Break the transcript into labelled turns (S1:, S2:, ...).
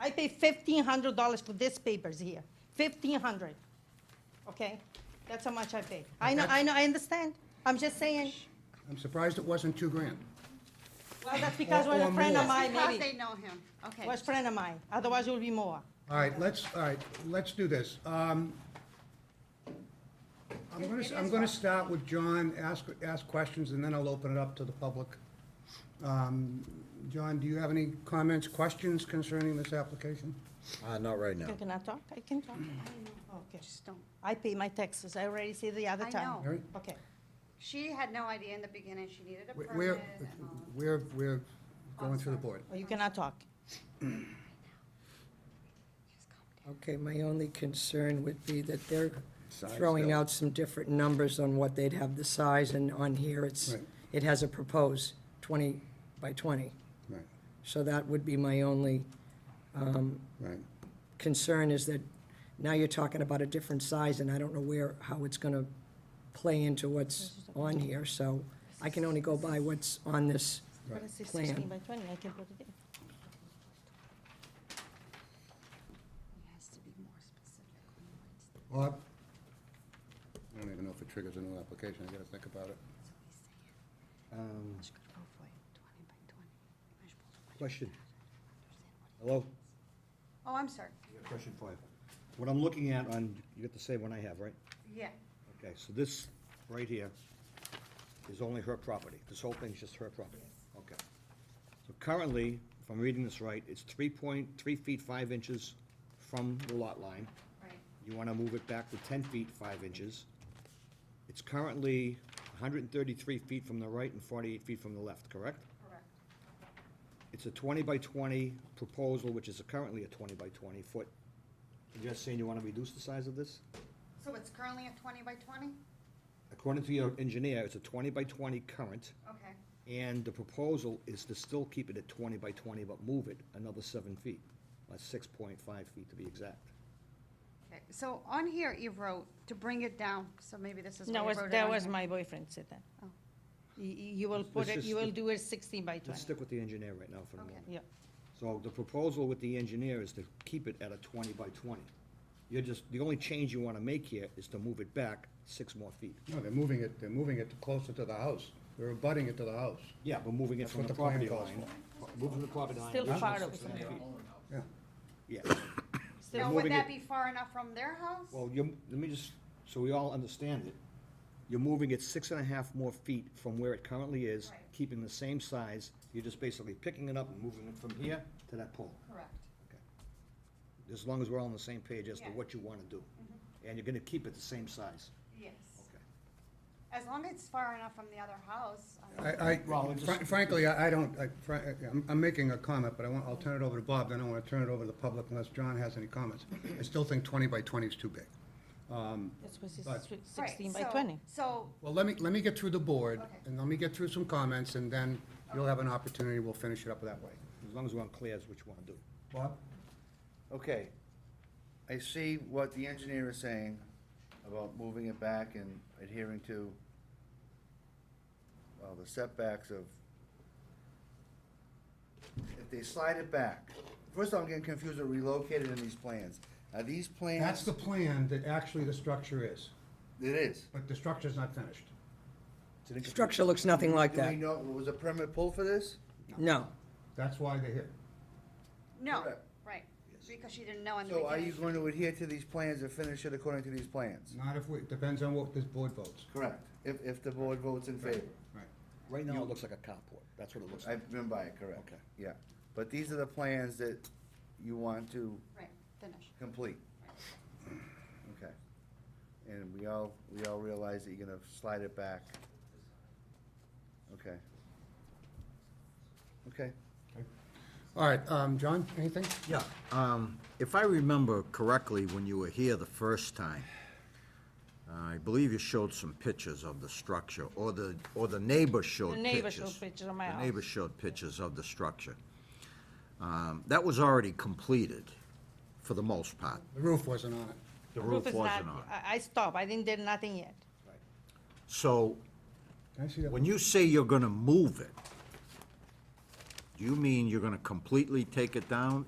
S1: I pay fifteen hundred dollars for these papers here, fifteen hundred, okay? That's how much I pay. I know, I know, I understand. I'm just saying,
S2: I'm surprised it wasn't two grand.
S1: well, that's because we're
S2: Or
S1: a friend of
S2: more.
S1: mine,
S3: Because
S1: maybe.
S3: they know him, okay.
S1: Was friend of mine, otherwise it will be more.
S2: All right, let's, all right, let's do this. Um, I'm gonna, I'm gonna start with John, ask, ask questions, and then I'll open it up to the public. Um, John, do you have any comments, questions concerning this application?
S4: Uh, not right now.
S1: Can I talk? I can talk. Okay.
S3: Just don't.
S1: I pay my taxes, I already see the other
S3: I
S1: time.
S3: know.
S2: All right?
S1: Okay,
S3: She had no idea in the beginning, she needed a
S2: We're-
S3: permit.
S2: We're,
S3: and all of-
S2: we're, we're going through the board.
S1: or you cannot talk.
S3: Just calm down.
S5: Okay, my only concern would be that they're
S4: Size
S5: throwing
S4: bill.
S5: out some different numbers on what they'd have the size, and on here, it's,
S2: Right.
S5: it has a proposed 20 by 20.
S2: Right,
S5: So that would be my only
S2: right.
S5: concern, is that now you're talking about a different size, and I don't know where, how it's gonna play into what's on here, so I can only go by what's on this.
S1: But I say
S5: Plan.
S1: sixteen by twenty, I can put it in.
S3: He has to be more specific when he writes the-
S2: Bob? I don't even know if it triggers a new application, I gotta think about it.
S3: that's what he's saying.
S4: Um,
S3: She could go for it, 20 by 20, measurable to measure.
S4: Question. Hello?
S3: Oh, I'm sorry,
S4: Question for you. What I'm looking at on, you got the same one I have, right?
S3: yeah,
S4: Okay, so this right here is only her property. This whole thing's just her property. Okay. So currently, if I'm reading this right, it's three point, three feet, five inches from the lot line.
S3: right.
S4: You wanna move it back to ten feet, five inches. It's currently hundred and thirty-three feet from the right and forty-eight feet from the left, correct?
S3: Correct.
S4: It's a twenty by twenty proposal, which is currently a twenty by twenty foot. You're just saying you wanna reduce the size of this?
S3: So it's currently a 20 by 20?
S4: According to your engineer, it's a twenty by twenty current,
S3: Okay,
S4: and the proposal is to still keep it at twenty by twenty, but move it another seven feet, or six point five feet to be exact.
S3: okay. So on here, you wrote to bring it down, so maybe this is why
S1: No,
S3: you
S1: was,
S3: wrote it
S1: that
S3: on
S1: was
S3: here.
S1: my boyfriend said that.
S3: Oh.
S1: You, you will put it,
S4: just-
S1: you will do it sixteen by
S4: Let's
S1: twenty.
S4: stick with the engineer right now for the
S3: Okay.
S4: moment.
S1: Yeah,
S4: So the proposal with the engineer is to keep it at a twenty by twenty. You're just, the only change you wanna make here is to move it back six more feet.
S2: No, they're moving it, they're moving it closer to the house. They're abutting it to the house.
S4: Yeah, but moving it
S2: That's
S4: from
S2: what
S4: the
S2: the plan
S4: property
S2: calls
S4: line. Moving the property line.
S1: still
S4: original
S1: far away
S4: six
S1: from
S4: and a
S1: there.
S4: half feet.
S2: Yeah.
S4: Yeah,
S1: Still-
S3: Now,
S4: moving
S3: would that
S4: it-
S3: be far enough from their house?
S4: well, you, let me just, so we all understand it. You're moving it six and a half more feet from where it currently is,
S3: Right.
S4: keeping the same size. You're just basically picking it up and moving it from here to that pole.
S3: Correct.
S4: As long as we're all on the same page as to
S3: Yeah.
S4: what you wanna do. And you're gonna keep it the same size.
S3: Yes.
S4: Okay.
S3: As long as it's far enough from the other house. I mean-
S2: I,
S4: Well,
S2: I,
S4: it
S2: fr-
S4: just-
S2: frankly, I I don't, I fr- I'm, I'm making a comment, but I want, I'll turn it over to Bob, then I want to turn it over to the public unless John has any comments. I still think twenty by twenty is too big.
S1: That's what
S2: But-
S1: it's swi-
S3: Right,
S1: sixteen by
S3: so-
S1: twenty.
S3: So,
S2: Well, let me, let me get through the board,
S3: Okay.
S2: and let me get through some comments, and then you'll have an opportunity, we'll finish it up that way.
S4: As long as we're on clear as what you wanna do.
S2: Bob?
S6: Okay, I see what the engineer is saying about moving it back and adhering to, well, the setbacks of, if they slide it back, first of all, I'm getting confused with relocated in these plans. Are these plans?
S2: That's the plan that actually the structure is,
S6: It is.
S2: but the structure's not finished.
S4: It's an incomplete-
S5: Structure looks nothing like
S6: Do we
S5: that.
S6: know, was a permit pulled for this?
S5: No.
S2: That's why they're here.
S3: no,
S6: Correct.
S3: right, because she didn't know in the
S6: So are you
S3: beginning.
S6: going to adhere to these plans and finish it according to these plans?
S2: Not if we, depends on what this board votes.
S6: Correct, if, if the board votes in favor.
S2: Right.
S4: Right now, it looks like a carport. That's what it looks like.
S6: I've been by it, correct.
S4: Okay.
S6: Yeah, but these are the plans that you want to
S3: Right, finish.
S6: complete. Okay. And we all, we all realize that you're gonna slide it back. Okay. Okay.
S2: All right, um, John, anything?
S7: Yeah, um, if I remember correctly, when you were here the first time, I believe you showed some pictures of the structure, or the, or the neighbor showed pictures.
S1: The neighbor showed pictures of my
S7: The neighbor
S1: house.
S7: showed pictures of the structure. Um, That was already completed, for the most part.
S2: The roof wasn't on it.
S7: The
S1: Roof
S7: roof
S1: is
S7: wasn't
S1: not,
S7: on.
S1: I, I stopped, I didn't did nothing yet.
S7: So,
S2: Can I see that?
S7: when you say you're gonna move it, do you mean you're gonna completely take it down